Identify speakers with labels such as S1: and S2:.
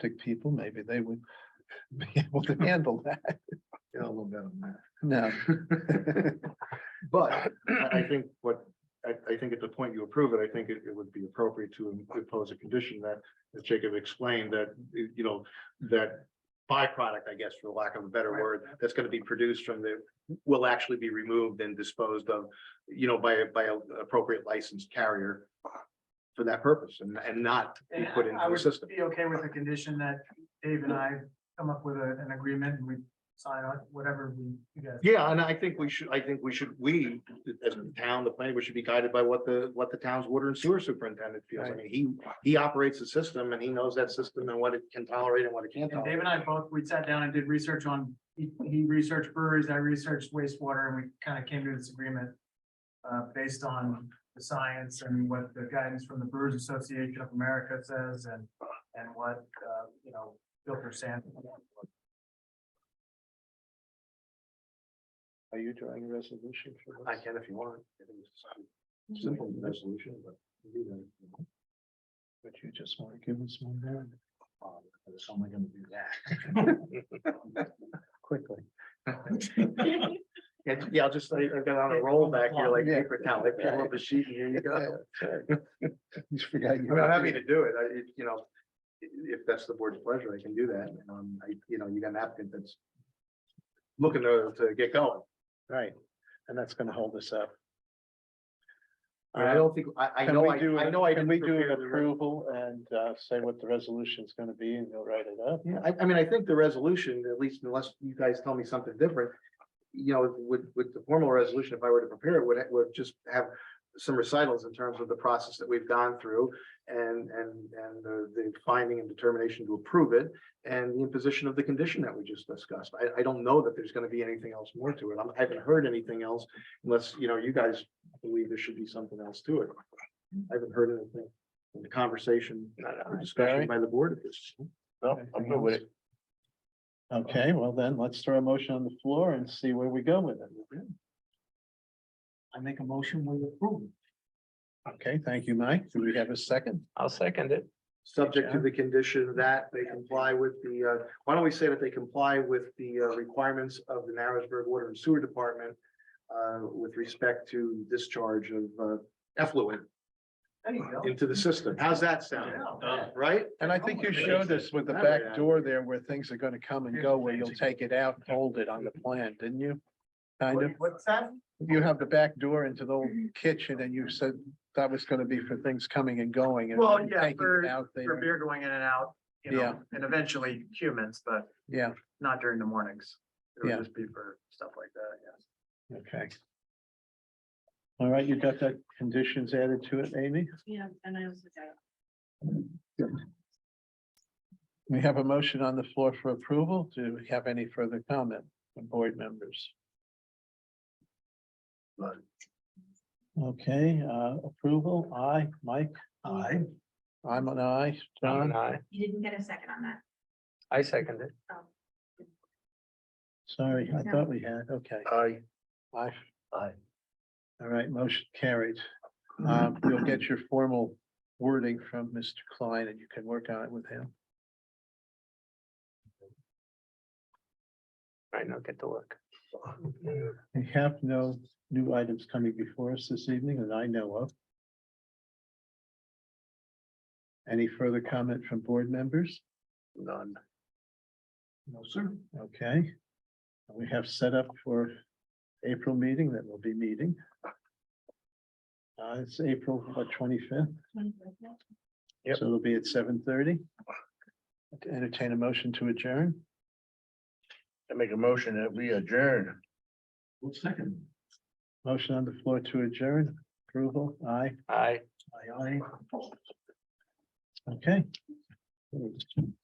S1: autistic people, maybe they would be able to handle that.
S2: Yeah, a little bit on that.
S1: No,
S2: But I, I think what, I, I think at the point you approve it, I think it, it would be appropriate to impose a condition that, as Jacob explained, that, you know, that byproduct, I guess, for lack of a better word, that's gonna be produced from the, will actually be removed and disposed of, you know, by, a by a appropriate licensed carrier for that purpose and, and not be put
S3: I
S2: into the
S3: would
S2: system.
S3: Be okay with the condition that Dave and I come up with a- an agreement and we sign on whatever we, you guys.
S2: Yeah, and I think we should, I think we should, we, as a town, the planning, we should be guided by what the, what the town's water and sewer superintendent feels. I mean, he, he operates the system and he knows that system and what it can tolerate and what it can't
S3: And
S2: tolerate.
S3: Dave and I both, we sat down and did research on, he, he researched breweries, I researched wastewater, and we kind of came to this agreement. Uh, based on the science and what the guidance from the Brewers Association of America says and, and what, uh, you know, filter sand.
S1: are you drawing a resolution for
S2: I
S1: this?
S2: can if you want. I think it's a Simple resolution, but. you do that.
S1: Would you just want to give us one there
S2: Um, but It's only gonna do that.
S1: quickly?
S2: And, yeah, I'll just, I I got on a roll back here like paper towel, I pull up a sheet and here you
S1: Yeah,
S2: go.
S1: sorry. You forgot
S2: I
S1: you-
S2: mean, I'm happy to do it, I, it- you know, i- if that's the board's pleasure, I can do that, um, I, you know, you got an applicant that's. Looking to, to get going,
S1: Right, and that's gonna hold us up.
S2: I mean, I don't think, I, Uh, I
S1: Can
S2: know,
S1: we
S2: I,
S1: do,
S2: I
S1: an-
S2: know I.
S1: can
S2: didn't
S1: we do
S2: prepare
S1: an
S2: the re-
S1: approval and uh, say what the resolution is gonna be and you'll write it up?
S2: Yeah, I, I mean, I think the resolution, at least unless you guys tell me something different. You know, with, with the formal resolution, if I were to prepare it, would, would just have some recitals in terms of the process that we've gone through. And, and, and the, the finding and determination to approve it and the imposition of the condition that we just discussed. I, I don't know that there's gonna be anything else more to it. I'm- I haven't heard anything else unless, you know, you guys believe there should be something else to it. I haven't heard anything in the conversation or discussion
S1: Barry?
S2: by the board at this.
S4: No, I'm good with it.
S1: Okay, well then, let's throw a motion on the floor and see where we go with it.
S3: I make a motion, we approve.
S1: Okay, thank you, Mike. Do we have a second?
S4: I'll second it.
S2: Subject to the condition that they comply with the, uh, why don't we say that they comply with the uh, requirements of the Narrowsburg Water and Sewer Department uh, with respect to discharge of uh, effluent
S3: There you go.
S2: into the system. How's that sound?
S3: Yeah.
S2: Right?
S1: And I think
S3: Oh,
S1: you showed us with the back door there where things are gonna come and go, where you'll take it out, and hold it on the plan, didn't you? Kind of,
S3: What- What's that?
S1: you have the back door into the old kitchen and you said that was gonna be for things coming and going. and
S3: Well,
S1: taking
S3: yeah,
S1: it
S3: for-
S1: out
S3: For
S1: there.
S3: beer going in and out, you
S1: Yeah.
S3: know, and eventually humans, but
S1: Yeah.
S3: not during the mornings. It
S1: Yeah.
S3: would just be for stuff like that, yes.
S1: Okay. All right, you got that conditions added to it, Amy?
S5: Yeah, and I also got.
S1: We have a motion on the floor for approval. Do we have any further comment from board members?
S2: None.
S1: Okay, uh, approval, aye, Mike,
S2: Aye.
S1: I'm an aye, John,
S4: I,
S5: You didn't get a second on that.
S4: I second it.
S5: um,
S1: sorry, I
S5: No.
S1: thought we had, okay,
S2: Aye.
S1: aye.
S2: Aye.
S1: All right, motion carried. Um, you'll get your formal wording from Mr. Klein and you can work on it with him.
S4: Right now, get to work.
S1: We have no new items coming before us this evening that I know of. Any further comment from board members?
S2: None. No, sir.
S1: Okay. We have set up for April meeting that will be meeting. Uh, it's April twenty-fifth,
S5: 25th now?
S4: Yep.
S1: so it'll be at seven thirty. Entertain a motion to adjourn.
S4: I make a motion that we adjourn.
S2: Second.
S1: Motion on the floor to adjourn. Approval, aye.
S4: Aye.
S1: Aye, aye. Okay.